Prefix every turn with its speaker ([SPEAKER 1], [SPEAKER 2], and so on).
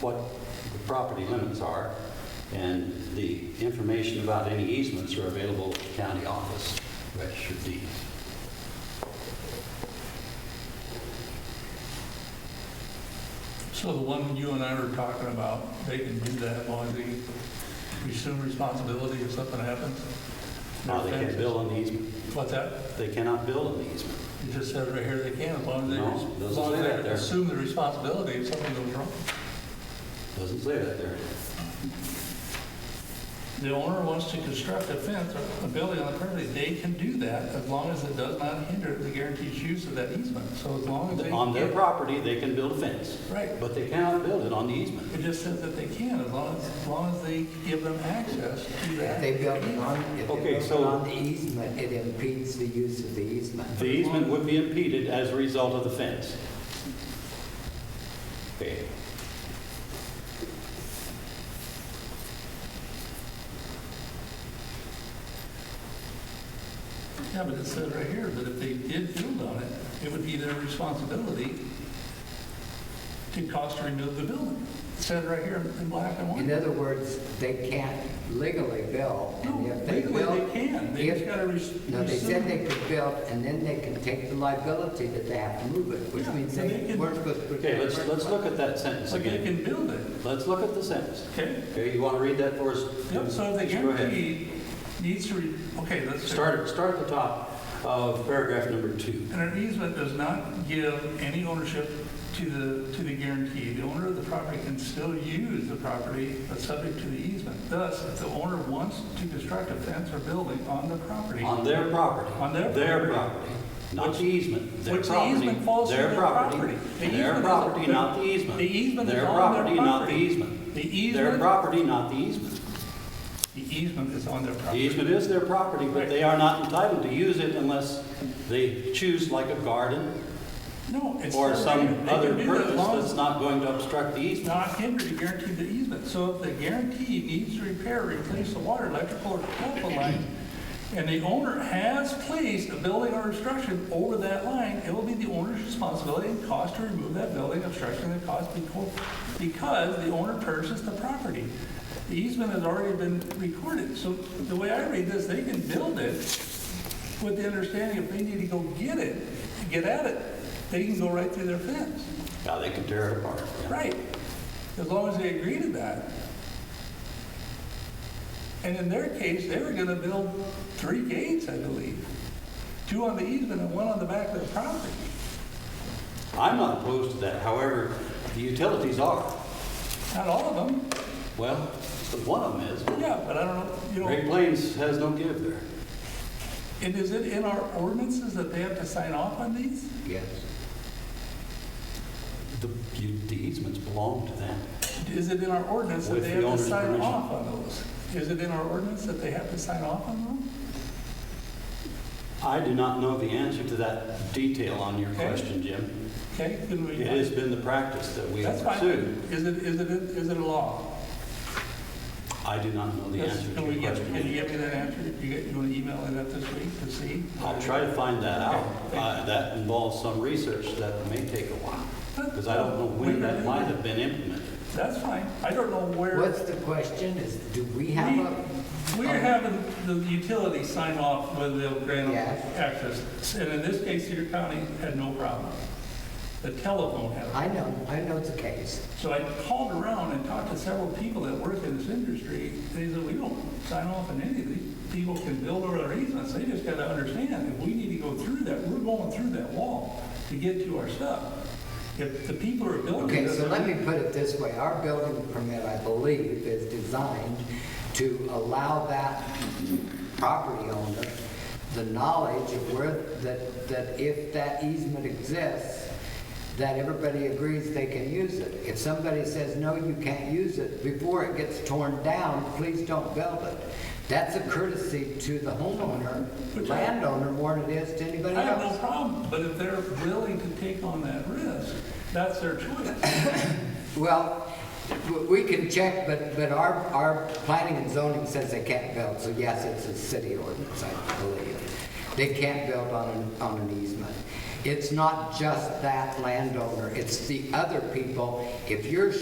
[SPEAKER 1] what the property limits are, and the information about any easements are available at the county office, register of deeds.
[SPEAKER 2] So the one you and I were talking about, they can do that as long as they assume responsibility if something happens?
[SPEAKER 1] Now, they can't
[SPEAKER 2] Their
[SPEAKER 1] build an easement,
[SPEAKER 2] fences. What's that?
[SPEAKER 1] they cannot build an easement.
[SPEAKER 2] It just says right here they can, as long
[SPEAKER 1] No,
[SPEAKER 2] as they, as
[SPEAKER 1] doesn't
[SPEAKER 2] long as
[SPEAKER 1] say that
[SPEAKER 2] they
[SPEAKER 1] there.
[SPEAKER 2] assume the responsibility if something goes wrong.
[SPEAKER 1] Doesn't say that there.
[SPEAKER 2] The owner wants to construct a fence or a building on the property, they can do that as long as it does not hinder the guaranteed use of that easement. So as long as they.
[SPEAKER 1] On their property, they can build a fence,
[SPEAKER 2] Right.
[SPEAKER 1] but they cannot build it on the easement.
[SPEAKER 2] It just says that they can, as long as, as long as they give them access to
[SPEAKER 3] If
[SPEAKER 2] that.
[SPEAKER 3] they build it on, if they
[SPEAKER 1] Okay,
[SPEAKER 3] build it
[SPEAKER 1] so-
[SPEAKER 3] on the easement, it impedes the use of the easement.
[SPEAKER 1] The easement would be impeded as a result of the fence. Okay.
[SPEAKER 2] Yeah, but it says right here that if they did build on it, it would be their responsibility to cost to remove the building. It says right here in black and
[SPEAKER 3] In
[SPEAKER 2] white.
[SPEAKER 3] other words, they can't legally build, and
[SPEAKER 2] No,
[SPEAKER 3] if they
[SPEAKER 2] legally they
[SPEAKER 3] build.
[SPEAKER 2] can, they just
[SPEAKER 3] if-
[SPEAKER 2] gotta. res-
[SPEAKER 3] No, they said
[SPEAKER 2] rescind.
[SPEAKER 3] they could build, and then they can take the liability that they have to move it, which
[SPEAKER 2] Yeah,
[SPEAKER 3] means
[SPEAKER 2] so they
[SPEAKER 3] they
[SPEAKER 2] can-
[SPEAKER 3] weren't supposed to.
[SPEAKER 1] Okay, let's, let's look at that sentence
[SPEAKER 2] But they
[SPEAKER 1] again.
[SPEAKER 2] can build it,
[SPEAKER 1] Let's look at the sentence.
[SPEAKER 2] okay?
[SPEAKER 1] Okay, you want to read that for us?
[SPEAKER 2] Yep, so
[SPEAKER 1] Go
[SPEAKER 2] the
[SPEAKER 1] ahead.
[SPEAKER 2] guarantee needs to, re- okay, let's.
[SPEAKER 1] Start, start at the top of paragraph number two.
[SPEAKER 2] And an easement does not give any ownership to the, to the guarantee. The owner of the property can still use the property, but subject to the easement. Thus, if the owner wants to construct a fence or building on the property,
[SPEAKER 1] On their property.
[SPEAKER 2] On their property.
[SPEAKER 1] property, not the easement. Their
[SPEAKER 2] which the
[SPEAKER 1] property,
[SPEAKER 2] easement falls to their property. The easement
[SPEAKER 1] Their
[SPEAKER 2] is-
[SPEAKER 1] property, not the easement.
[SPEAKER 2] The easement is
[SPEAKER 1] Their
[SPEAKER 2] on their
[SPEAKER 1] property, not the
[SPEAKER 2] property.
[SPEAKER 1] easement.
[SPEAKER 2] the
[SPEAKER 1] Their
[SPEAKER 2] easement,
[SPEAKER 1] property, not the easement.
[SPEAKER 2] the easement is on their
[SPEAKER 1] The
[SPEAKER 2] property.
[SPEAKER 1] easement is their property, but
[SPEAKER 2] Right.
[SPEAKER 1] they are not entitled to use it unless they choose like a garden
[SPEAKER 2] No, it's.
[SPEAKER 1] or
[SPEAKER 2] still there.
[SPEAKER 1] some
[SPEAKER 2] They
[SPEAKER 1] other
[SPEAKER 2] can do that as
[SPEAKER 1] purpose
[SPEAKER 2] long as
[SPEAKER 1] that's not going to obstruct the easement.
[SPEAKER 2] not hinder the guarantee of the easement. So if the guarantee needs to repair, or replace the water, electrical, or telephone line, and the owner has placed a building or obstruction over that line, it will be the owner's responsibility and cost to remove that building, obstruction, and cost beco- because the owner purchased the property. The easement has already been recorded, so the way I read this, they can build it with the understanding if they need to go get it, get at it, they can go right through their fence.
[SPEAKER 1] Now, they can tear it apart. yeah.
[SPEAKER 2] Right, as long as they agree to that. And in their case, they were gonna build three gates, I believe. Two on the easement and one on the back of the property.
[SPEAKER 1] I'm not opposed to that, however, the utilities are.
[SPEAKER 2] Not all of them,
[SPEAKER 1] Well, one of them is.
[SPEAKER 2] yeah, but I don't know, you
[SPEAKER 1] Great
[SPEAKER 2] know,
[SPEAKER 1] Plains has no give there.
[SPEAKER 2] and is it in our ordinances that they have to sign off on these?
[SPEAKER 3] Yes.
[SPEAKER 1] The you- the easements belong to them.
[SPEAKER 2] Is it in our ordinance that
[SPEAKER 1] With
[SPEAKER 2] they
[SPEAKER 1] the
[SPEAKER 2] have to
[SPEAKER 1] owner's
[SPEAKER 2] sign
[SPEAKER 1] permission.
[SPEAKER 2] off on those? Is it in our ordinance that they have to sign off on them?
[SPEAKER 1] I do not know the answer to that detail on your
[SPEAKER 2] Okay.
[SPEAKER 1] question, Jim.
[SPEAKER 2] Okay, then we.
[SPEAKER 1] It has been the practice that we have
[SPEAKER 2] That's fine.
[SPEAKER 1] pursued.
[SPEAKER 2] Is it, is it, is it a law?
[SPEAKER 1] I do not know the
[SPEAKER 2] Yes,
[SPEAKER 1] answer
[SPEAKER 2] Can
[SPEAKER 1] to
[SPEAKER 2] we
[SPEAKER 1] your
[SPEAKER 2] get, can you
[SPEAKER 1] question.
[SPEAKER 2] get me that answer? You get- you want to email it up this week to see?
[SPEAKER 1] I'll try to find that out.
[SPEAKER 2] Okay, thank you.
[SPEAKER 1] Uh, That involves some research that may take a while, because I don't know when that might have been implemented.
[SPEAKER 2] That's fine. I don't know where,
[SPEAKER 3] What's the question is, do we have a?
[SPEAKER 2] we're having the utility sign off whether they'll grant
[SPEAKER 3] Yes.
[SPEAKER 2] access. And in this case, Cedar County had no problem. The telephone had. it.
[SPEAKER 3] I know, I know the case.
[SPEAKER 2] So I called around and talked to several people that work in this industry. They said, we don't sign off on any of these. People can build over their easements. They just got to understand, if we need to go through that, we're going through that wall to get to our stuff. If the people are building.
[SPEAKER 3] Okay,
[SPEAKER 2] this-
[SPEAKER 3] so let me put it this way, our building permit, I believe, is designed to allow that property owner the knowledge of where, that, that if that easement exists, that everybody agrees they can use it. If somebody says, no, you can't use it, before it gets torn down, please don't build it. That's a courtesy to the homeowner,
[SPEAKER 2] Which I-
[SPEAKER 3] landowner, more than it is to anybody
[SPEAKER 2] I have no
[SPEAKER 3] else.
[SPEAKER 2] problem, but if they're willing to take on that risk, that's their choice.
[SPEAKER 3] Well, w- we can check, but, but our, our planning and zoning says they can't build, so yes, it's a city ordinance, I believe. They can't build on an, on an easement. It's not just that landowner, it's the other people. If you're